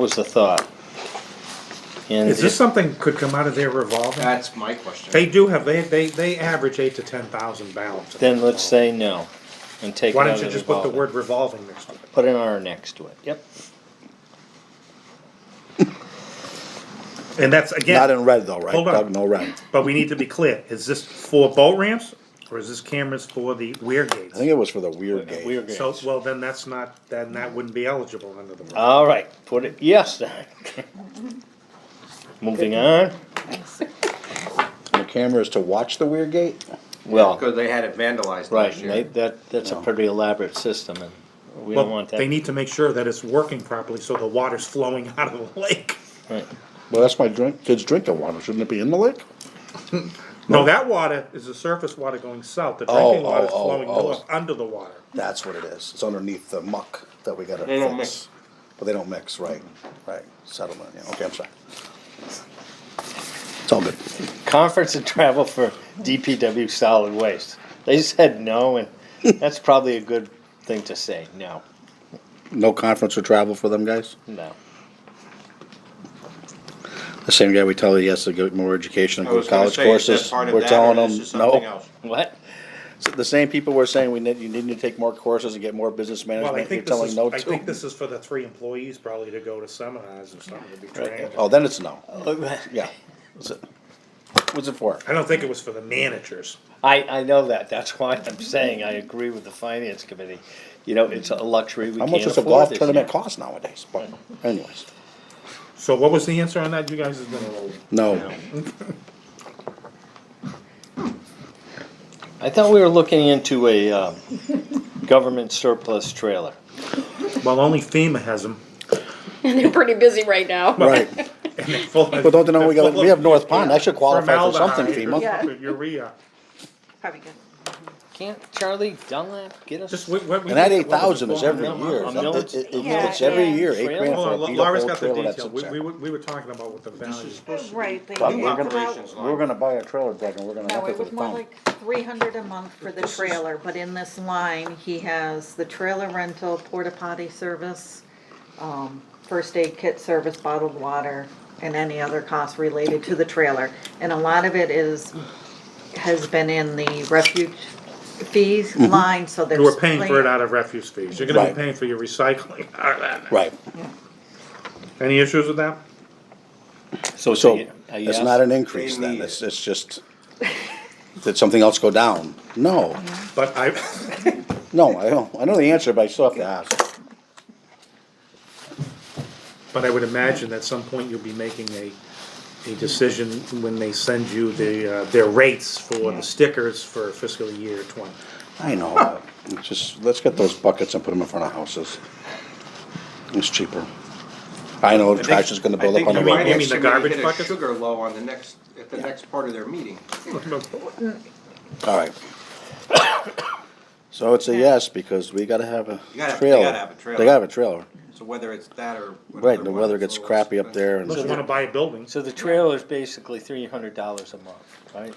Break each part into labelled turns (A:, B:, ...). A: was the thought. And
B: Is this
A: it-
B: something could come out of their revolving?
C: That's my question.
B: They do have, they, they, they average eight to ten thousand balance.
A: then let's say no, and take it
B: Why
A: out
B: don't
A: of
B: you
A: the
B: just put the
A: revolving.
B: word revolving next to it?
A: Put an R next to it, yep.
B: And that's,
D: Not
B: again,
D: in red though, right?
B: Hold on.
D: Doug, No red.
B: but we need to be clear, is this for boat ramps, or is this cameras for the weir
D: I
B: gates?
D: think it was for the weird gate.
A: We're good.
B: So, well, then that's not, then that wouldn't be eligible under the. rule.
A: All right, put it, yes. then. Moving on,
D: The cameras to watch the weird gate?
A: well,
C: Because they had it vandalized
A: right,
C: last
A: and they-
C: year.
A: that, that's a
D: No.
A: pretty elaborate system, and we don't
B: Well,
A: want
B: they
A: that.
B: need to make sure that it's working properly, so the water's flowing out of the lake.
A: Right.
D: Well, that's my drink, kids drinking water. Shouldn't it be in the lake?
B: No, that water is the surface water going south, the
D: Oh,
B: drinking water is
D: oh, oh,
B: flowing
D: oh.
B: north, under the water.
D: That's what it is. It's underneath the muck that we gotta
C: They don't
D: fix.
C: mix.
D: But they don't mix, right, right. Settlement, yeah. Okay, I'm sorry. It's all good.
A: Conference and travel for DPW solid waste. They said no, and that's probably a good thing to say, no,
D: No conference or travel for them guys?
A: no.
D: The same guy we tell he has to get more education
C: I
D: and go
C: was
D: to
C: gonna
D: college
C: say, is that
D: courses,
C: part of
D: we're
C: that,
D: telling
C: or is
D: them,
C: this something
D: no.
C: else?
A: What?
D: The same people were saying we need, you need to take more courses and get more business
B: Well, I
D: management, you're
B: think this
D: telling
B: is,
D: no
B: I think
D: to.
B: this is for the three employees probably to go to seminars or something to be trained.
D: Oh, then it's no,
A: I,
D: yeah. What's it- What's it for?
B: I don't think it was for the managers.
A: I know that, that's why I'm saying I agree with the finance committee. You know, it's a luxury we
D: How
A: can't
D: much does a
A: afford
D: golf
A: this
D: tournament
A: year.
D: cost nowadays? But anyways,
B: So what was the answer on that? You guys have been a little.
D: no,
A: I thought we were looking into a, um, government surplus trailer.
B: Well, only FEMA has them.
E: And they're pretty busy right now.
D: right. But
B: But
D: don't they know we got, we have North Pond, I should qualify for something FEMA.
E: Yeah.
B: Urea.
E: Probably good.
A: Can't Charlie Dunlap get us?
B: Just what, what we.
D: And that
B: did-
D: eight
B: what was it,
D: thousand is
B: twelve
D: every
B: million?
D: year,
A: I'm
D: That-
A: not-
D: it- it-
E: Yeah,
D: it's every
E: yeah.
D: year, eight grand
B: Hold
D: for
B: on,
D: a
B: Lau-
D: beat up
B: Laura's
D: old
B: got the
D: trailer that's
B: detail. We, we,
D: exact.
B: were- we were talking about what the value.
F: Right, but
D: But
F: you
D: we're
F: have to
C: gonna-
F: out-
D: We're gonna buy a trailer deck and we're gonna
F: No,
D: have it
F: it
D: for
F: was
D: the
F: more
D: town.
F: like three hundred a month for the trailer, but in this line, he has the trailer rental, porta potty service, um, first aid kit service, bottled water, and any other costs related to the trailer. And a lot of it is, has been in the refuge fees line, so there's.
B: You were paying for it
F: plenty-
B: out of refuse fees. You're gonna be
D: Right.
B: paying for your recycling. out of that.
D: Right,
B: Any issues with that?
A: So,
D: so
A: you- are you
D: it's
A: ask-
D: not an increase
C: They
D: then,
C: need
D: it's, it's just, did something else go down? No,
B: But I,
D: no, I don't, I know the answer, but I still have to ask.
B: but I would imagine at some point you'll be making a, a decision when they send you the, uh, their rates for the stickers for fiscal year twenty.
D: I know, it's just, let's get those buckets and put them in front of houses. It's cheaper. I know
C: I think-
D: trash is gonna build
C: I
D: up
C: think
D: on the
C: the
B: mean-
D: road.
B: you mean
C: finance
B: the
C: committee
B: garbage
C: hit a
B: bucket?
C: sugar low on the next, at the next part of their meeting.
D: All right. So it's a yes, because we gotta have a
C: You gotta- they
D: trailer.
C: gotta have a trailer.
D: They gotta have a trailer,
C: So whether it's that or.
D: right, the weather gets crappy up there and,
B: Unless you wanna buy a building.
A: So the trailer's basically three hundred dollars a month, right?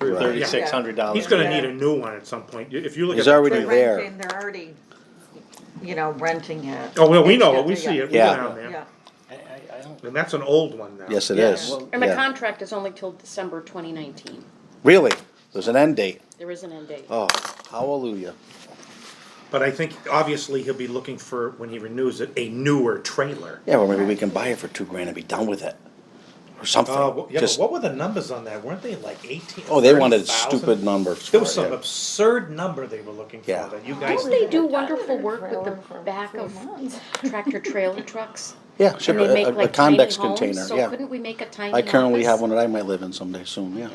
D: Right.
A: Thirty-six hundred dollars.
B: He's gonna need a new one at some point. You- If you look at.
D: He's already-
F: They're
D: there.
F: renting, They're already, you know, renting it.
B: Oh, well, we
F: It's
B: know it.
F: got
B: We
F: the-
B: see it. We're
D: Yeah.
B: down there.
F: Yeah.
A: I, I, I don't,
B: And that's an old one now.
D: yes, it
E: Yeah.
D: is.
E: Well,
D: Yeah.
G: And the contract is only till December twenty nineteen.
D: Really, there's an end date,
G: There is an end date.
D: oh, hallelujah.
B: But I think obviously he'll be looking for, when he renews it, a newer trailer.
D: Yeah, well, maybe we can buy it for two grand and be done with it, or
B: Uh,
D: something,
B: wh- yeah, but
D: just,
B: what were the numbers on that? Weren't they like eighteen?
D: oh, they wanted
B: 30,000?
D: stupid numbers
B: There
D: for
B: was some
D: it,
B: absurd number they were looking for
D: Yeah.
B: that you guys.
G: Don't they do wonderful work with the back of tractor trailer trucks?
D: yeah. Yeah, ship
G: And they
D: a,
G: make
D: a- a
G: like tiny
D: convex
G: homes,
D: container,
G: so
D: yeah.
G: couldn't we make a tiny
D: I currently
G: office?
D: have one that I might live in someday soon, yeah.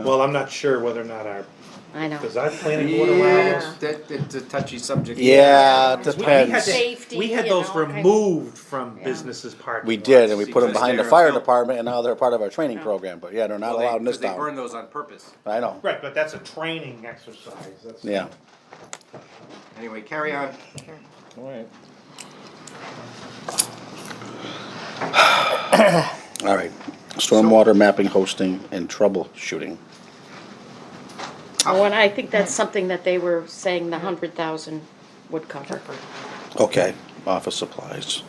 B: Well, I'm not sure whether or not our,
G: I know.
B: because our planning board allowed
C: Yeah,
B: us.
C: that, that's a touchy subject.
D: Yeah,
B: We-
D: it
B: we had
D: depends,
B: that-
G: Safety,
B: We had
G: you
B: those
G: know, kind of-
B: removed from businesses parking.
D: we
B: lots.
D: did, and we put them
C: Because
D: behind the
C: they're a
D: fire
C: built-
D: department, and now they're part of our training program, but yeah, they're not allowed in this
C: Because they burn
D: town,
C: those on purpose.
D: I know,
B: Right, but that's a training exercise. That's-
D: yeah.
C: Anyway, carry on.
A: alright.
D: All right, stormwater mapping, hosting, and troubleshooting.
G: Oh, and I think that's something that they were saying the hundred thousand would cover.
D: Okay, office supplies.